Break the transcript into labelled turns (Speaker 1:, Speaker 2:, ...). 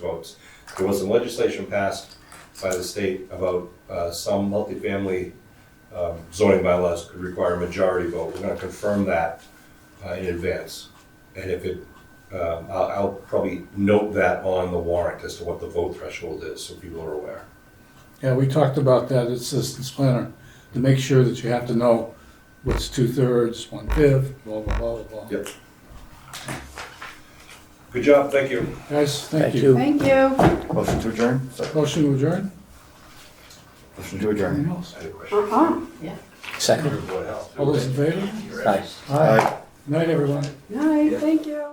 Speaker 1: votes. There was some legislation passed by the state about uh, some multifamily um, zoning bylaws could require a majority vote. We're gonna confirm that uh, in advance. And if it, um, I'll, I'll probably note that on the warrant as to what the vote threshold is, so people are aware.
Speaker 2: Yeah, we talked about that, at assistance planner, to make sure that you have to know what's two-thirds, one-fifth, blah, blah, blah, blah, blah.
Speaker 1: Yep. Good job, thank you.
Speaker 2: Guys, thank
Speaker 3: Thank
Speaker 2: you.
Speaker 4: Thank you.
Speaker 3: Motion to adjourn? Sorry.
Speaker 2: Motion to adjourn?
Speaker 3: Motion
Speaker 2: Anything
Speaker 3: to adjourn.
Speaker 2: else?
Speaker 1: I had a question.
Speaker 4: Uh-huh, yeah.
Speaker 1: for
Speaker 5: Second.
Speaker 1: Board of Health.
Speaker 2: All those in favor?
Speaker 5: Aye.
Speaker 3: Aye.
Speaker 2: Night, everyone.
Speaker 4: All right, thank you.